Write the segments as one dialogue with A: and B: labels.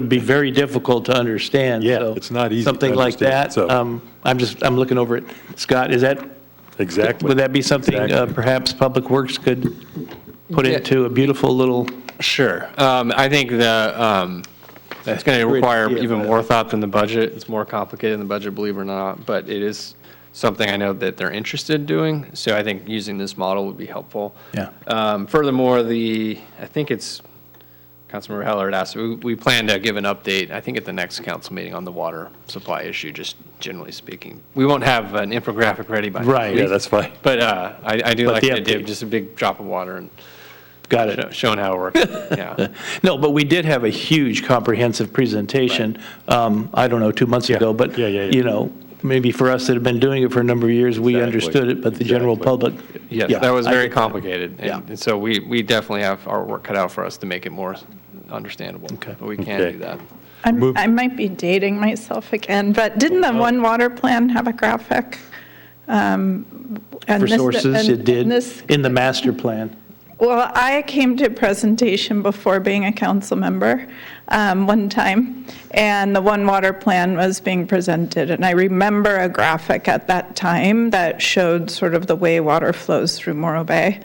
A: would be very difficult to understand.
B: Yeah,
A: so
B: it's not easy to
A: Something like
B: understand,
A: that.
B: so-
A: um, I'm just, I'm looking over it. Scott, is that,
B: Exactly.
A: would that be something uh,
B: Exactly.
A: perhaps Public Works could put into a beautiful little,
C: Sure. Um, I think the, um, it's going to require
A: idea,
C: even
A: but-
C: more thought than the budget. It's more complicated than the budget, believe it or not, but it is something I know that they're interested in doing. So I think using this model would be helpful.
A: Yeah.
C: Um, furthermore, the, I think it's, Councilmember Heller had asked, we, we plan to give an update, I think at the next council meeting on the water supply issue, just generally speaking. We won't have an infographic ready by. next
A: Right.
B: Yeah,
C: week,
B: that's fine.
C: But, uh, I, I do
A: But
C: like
A: the
C: the idea of
A: update.
C: just a big drop of water and
A: got
C: show-
A: it?
C: showing how it works. Yeah.
A: No, but we did have a huge comprehensive presentation, um, I don't know, two months ago, but,
B: Yeah, yeah, yeah.
A: you know, maybe for us that have been doing it for a number of years, we
B: Exactly.
A: understood it, but the general
B: Exactly.
A: public.
C: Yes,
A: yeah,
C: that was
A: I
C: very
A: get that.
C: complicated.
A: Yeah.
C: And and so we, we definitely have our work cut out for us to make it more understandable.
A: Okay.
C: But we can
B: Okay.
C: do that.
B: Move-
D: I'm- I might be dating myself again, but didn't the One Water Plan have a graphic? Um,
A: For sources, it did, in the master plan.
D: Well, I came to a presentation before being a council member um, one time, and the One Water Plan was being presented. And I remember a graphic at that time that showed sort of the way water flows through Morro Bay.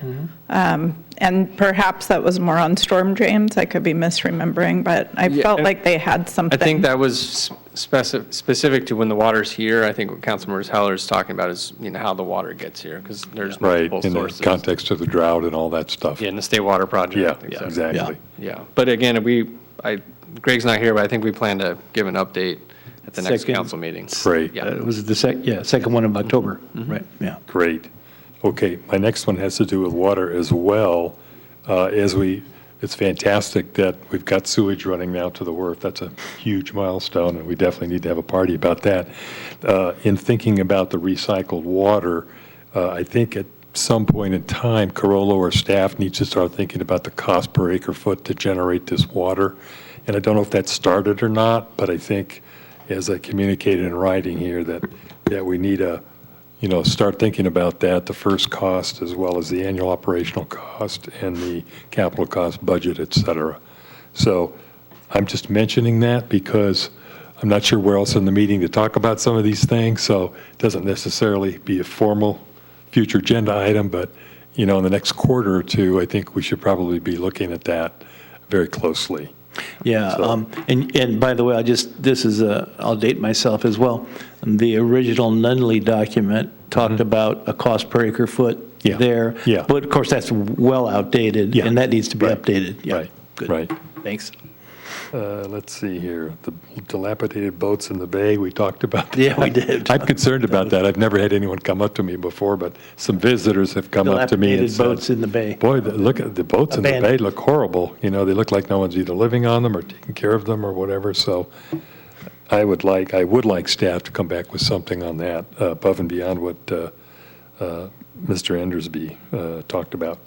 D: Um, And perhaps that was more on storm drains, I could be misremembering, but I
C: Yeah,
D: felt
C: and
D: like they had
C: I
D: something.
C: think that was specific, specific to when the water's here. I think what Councilmember Heller is talking about is, you know, how the water gets here because there's
B: Right,
C: multiple
B: in the
C: sources.
B: context of the drought and all that stuff.
C: Yeah, in the state water project.
B: Yeah,
C: I think so.
B: exactly.
C: Yeah, but again, we, I, Greg's not here, but I think we plan to give an update at the next
A: Second.
C: council meeting.
B: Great.
C: Yeah. Mm-hmm.
A: Uh, It was the sec, yeah, second one of October, right, yeah.
B: Great. Okay, my next one has to do with water as well. Uh, As we, it's fantastic that we've got sewage running now to the wharf. That's a huge milestone, and we definitely need to have a party about that. Uh, In thinking about the recycled water, uh, I think at some point in time, Corolla or staff needs to start thinking about the cost per acre foot to generate this water. And I don't know if that started or not, but I think, as I communicated in writing here, that, that we need a, you know, start thinking about that, the first cost as well as the annual operational cost and the capital cost budget, et cetera. So I'm just mentioning that because I'm not sure where else in the meeting to talk about some of these things, so it doesn't necessarily be a formal future agenda item, but, you know, in the next quarter or two, I think we should probably be looking at that very closely.
A: Yeah,
B: So-
A: um, and, and by the way, I just, this is a, I'll date myself as well. The original Nunley document talked about a cost per acre foot
B: Mm-hmm. Yeah,
A: there.
B: yeah.
A: But of course, that's well outdated,
B: Yeah,
A: and that needs to be
B: right,
A: updated. Yeah,
B: right,
A: good.
B: right.
A: Thanks.
B: Uh, Let's see here, the dilapidated boats in the bay, we talked about that.
A: Yeah, we did.
B: I'm concerned about that. I've never had anyone come up to me before, but some visitors have come up to me and
A: Dilapidated boats
B: said,
A: in the bay.
B: boy, the- look, at the boats in the bay
A: Abandoned.
B: look horrible. You know, they look like no one's either living on them or taking care of them or whatever. So I would like, I would like staff to come back with something on that uh, above and beyond what uh, uh, Mr. Endersby uh, talked about.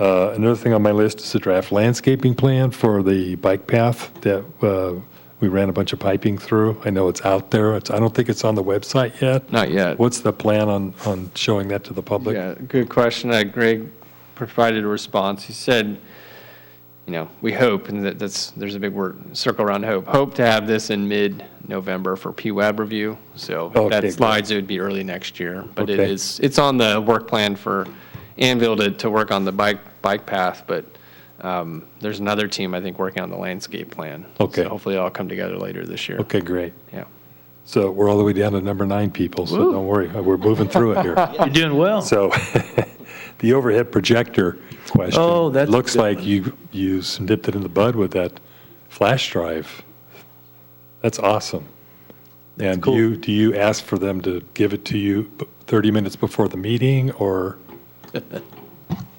B: Uh, Another thing on my list is the draft landscaping plan for the bike path that uh, we ran a bunch of piping through. I know it's out there. It's- I don't think it's on the website yet.
C: Not yet.
B: What's the plan on, on showing that to the public?
C: Yeah, good question. Uh, Greg provided a response. He said, you know, we hope, and that, that's, there's a big word, circle around hope, hope to have this in mid-November for PWAB review. So if
B: Okay,
C: that
B: good.
C: slides, it would be early next year. But it
B: Okay.
C: is, it's on the work plan for Anvil to, to work on the bike, bike path, but um, there's another team, I think, working on the landscape plan.
B: Okay.
C: So hopefully it'll all come together later this year.
B: Okay, great.
C: Yeah.
B: So we're all the way down to number nine people, so don't worry. We're moving through it here.
A: You're doing well.
B: So the overhead projector question.
A: Oh, that's a
B: Looks
A: good
B: like you, you nipped it in the bud with that flash drive. That's awesome. And do
A: cool.
B: you, do you ask for them to give it to you b- 30 minutes before the meeting or?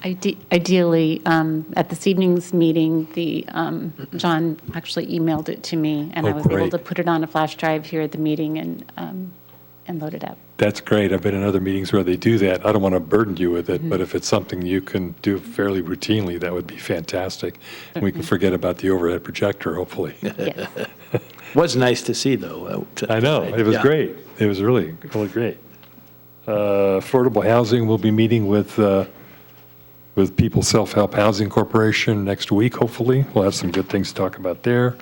E: Ide- Ideally, um, at this evening's meeting, the, um, John actually emailed it to me, and I
B: Oh,
E: was able
B: great.
E: to put it on a flash drive here at the meeting and, um, and load it up.
B: That's great. I've been in other meetings where they do that. I don't want to burden you with it, but
A: Mm-hmm.
B: if it's something you can do fairly routinely, that would be fantastic. And we can
A: Mm-hmm.
B: forget about the overhead projector, hopefully.
E: Yes.
A: Was nice to see, though. uh,
B: I know, it was
A: Yeah.
B: great. It was really, really great. Uh, Affordable Housing will be meeting with, uh, with People Self-Help Housing Corporation next week, hopefully. We'll have some good things to talk about there.